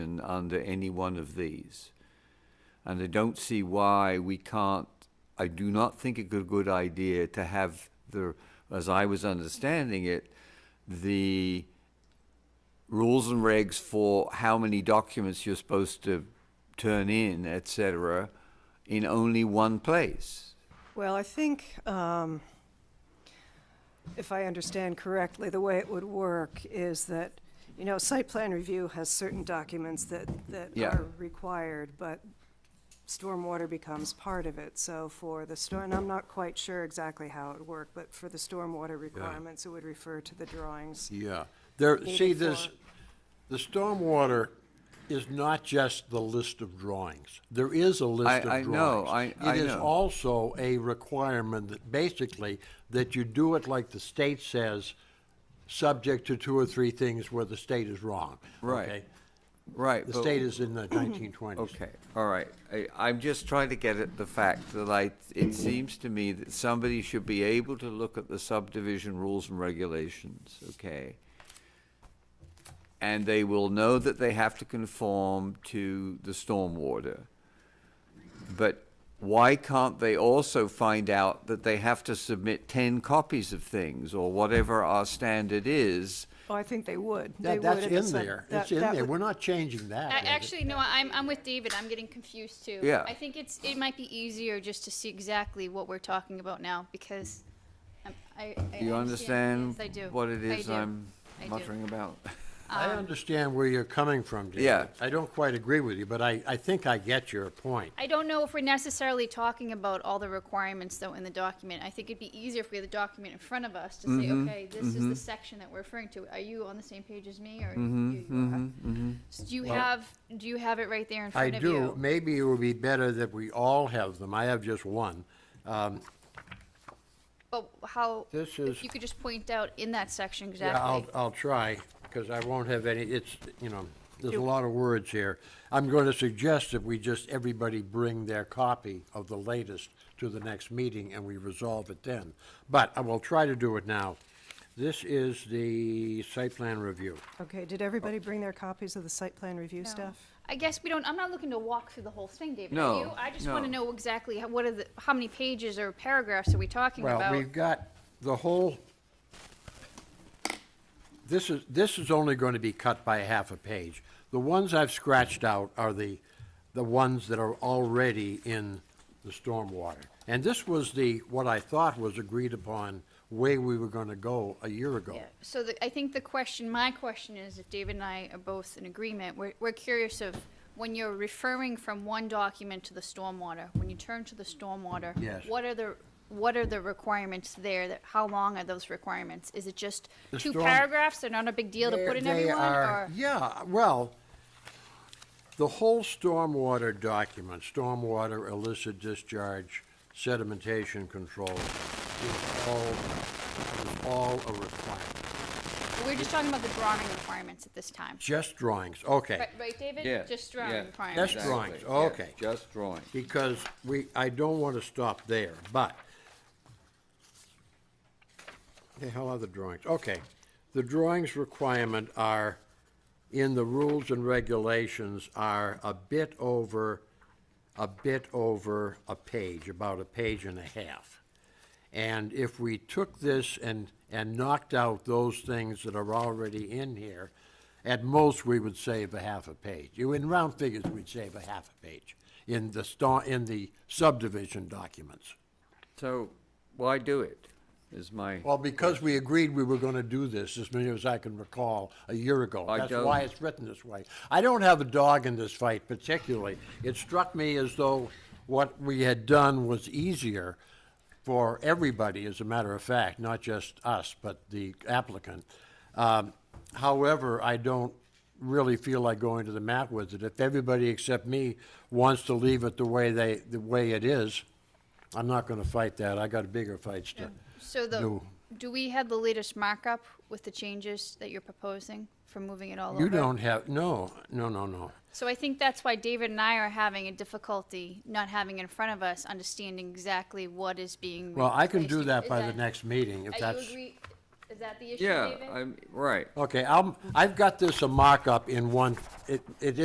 protection under any one of these. And I don't see why we can't, I do not think it a good idea to have the, as I was understanding it, the rules and regs for how many documents you're supposed to turn in, et cetera, in only one place. Well, I think, um, if I understand correctly, the way it would work is that, you know, site plan review has certain documents that, that Yeah. are required, but stormwater becomes part of it. So for the storm, and I'm not quite sure exactly how it would work, but for the stormwater requirements, it would refer to the drawings. Yeah, there, see, Needed this, for- the stormwater is not just the list of drawings. There is a I- list I of know, drawings. I- I It is know. also a requirement that basically, that you do it like the state says, subject to two or three things where the state is wrong. Right. okay? Right. The but- state is in the nineteen twenties. Okay, all right. I, I'm just trying to get at the fact that I, it seems to me that somebody should be able to look at the subdivision rules and regulations, okay? And they will know that they have to conform to the stormwater. But why can't they also find out that they have to submit ten copies of things or whatever our standard is? Oh, I think they would. They That, would that's at the in sub- there. that- It's in that there. would- We're not changing that. I, is it? actually, no, I'm, I'm with David. I'm getting confused too. Yeah. I think it's, it might be easier just to see exactly what we're talking about now because I'm- I, I. Do you understand Yes, I do. what it I is do. I'm I do. muttering about? I understand where you're coming from, David. Yeah. I don't quite agree with you, but I, I think I get your point. I don't know if we're necessarily talking about all the requirements though in the document. I think it'd be easier if we had the document in front of us to say, Mm-hmm. okay, this is the section that we're referring to. Are you on the same page as me or Mm-hmm, you, you are? So do you have do you have it right there in I front of you? do. Maybe it would be better that we all have them. I have just one. Um, But Oh, how? This if is- you could just point out in that section Yeah, exactly. I'll, I'll try, because I won't have any, it's, you know, there's a lot of words here. I'm going to suggest that we just, everybody bring their copy of the latest to the next meeting, and we resolve it then. But I will try to do it now. This is the site plan review. Okay, did everybody Oh. bring their copies of the site plan review No. stuff? I guess we don't, I'm not looking to walk through the whole thing, David. No, Are you? I just want to no. know exactly how, what are the, how many pages or paragraphs are we talking Well, about? we've got the whole, this is, this is only going to be cut by half a page. The ones I've scratched out are the, the ones that are already in the stormwater. And this was the, what I thought was agreed upon way we were going to go a year ago. Yeah, So the, I think the question, my question is, if David and I are both in agreement, we're, we're curious of when you're referring from one document to the stormwater, when you turn to the stormwater, Yes. what are the what are the requirements there? That how long are those requirements? Is it just The two storm- paragraphs? They're not a big deal to put in They- they everyone, are- or Yeah, well, the whole stormwater document, stormwater, illicit discharge, sedimentation control, is all, is all a requirement. we're just talking about the drawing requirements at this time. Just drawings, okay. Right, right, David? Just drawing yeah, requirements. Just exactly, drawings, yeah, Oh, okay. Just drawing. Because we, I don't want to stop there, but. The hell are the drawings? Okay. The drawings requirement are, in the rules and regulations, are a bit over, a bit over a page, about a page and a half. And if we took this and, and knocked out those things that are already in here, at most, we would save a half a page. You- In round figures, we'd save a half a page in the sta, in the subdivision documents. So why do it? Is my Well, because we agreed we were gonna do this, as many as I can recall, a year ago. I That's why don't- it's written this way. I don't have a dog in this fight particularly. It struck me as though what we had done was easier for everybody, as a matter of fact, not just us, but the applicant. Um, However, I don't really feel like going to the mat with it. If everybody except me wants to leave it the way they, the way it is, I'm not gonna fight that. I got bigger fights to So the, No. do we have the latest markup with the changes that you're proposing for moving it all over? You don't have, no, no, no, no. So I think that's why David and I are having a difficulty not having in front of us, understanding exactly what is being. Well, I can replaced. do that Is by the next meeting, if Are you that's, agree, is that the issue, yeah, David? I'm right. okay, I'm, I've got this a mock-up in one, it, it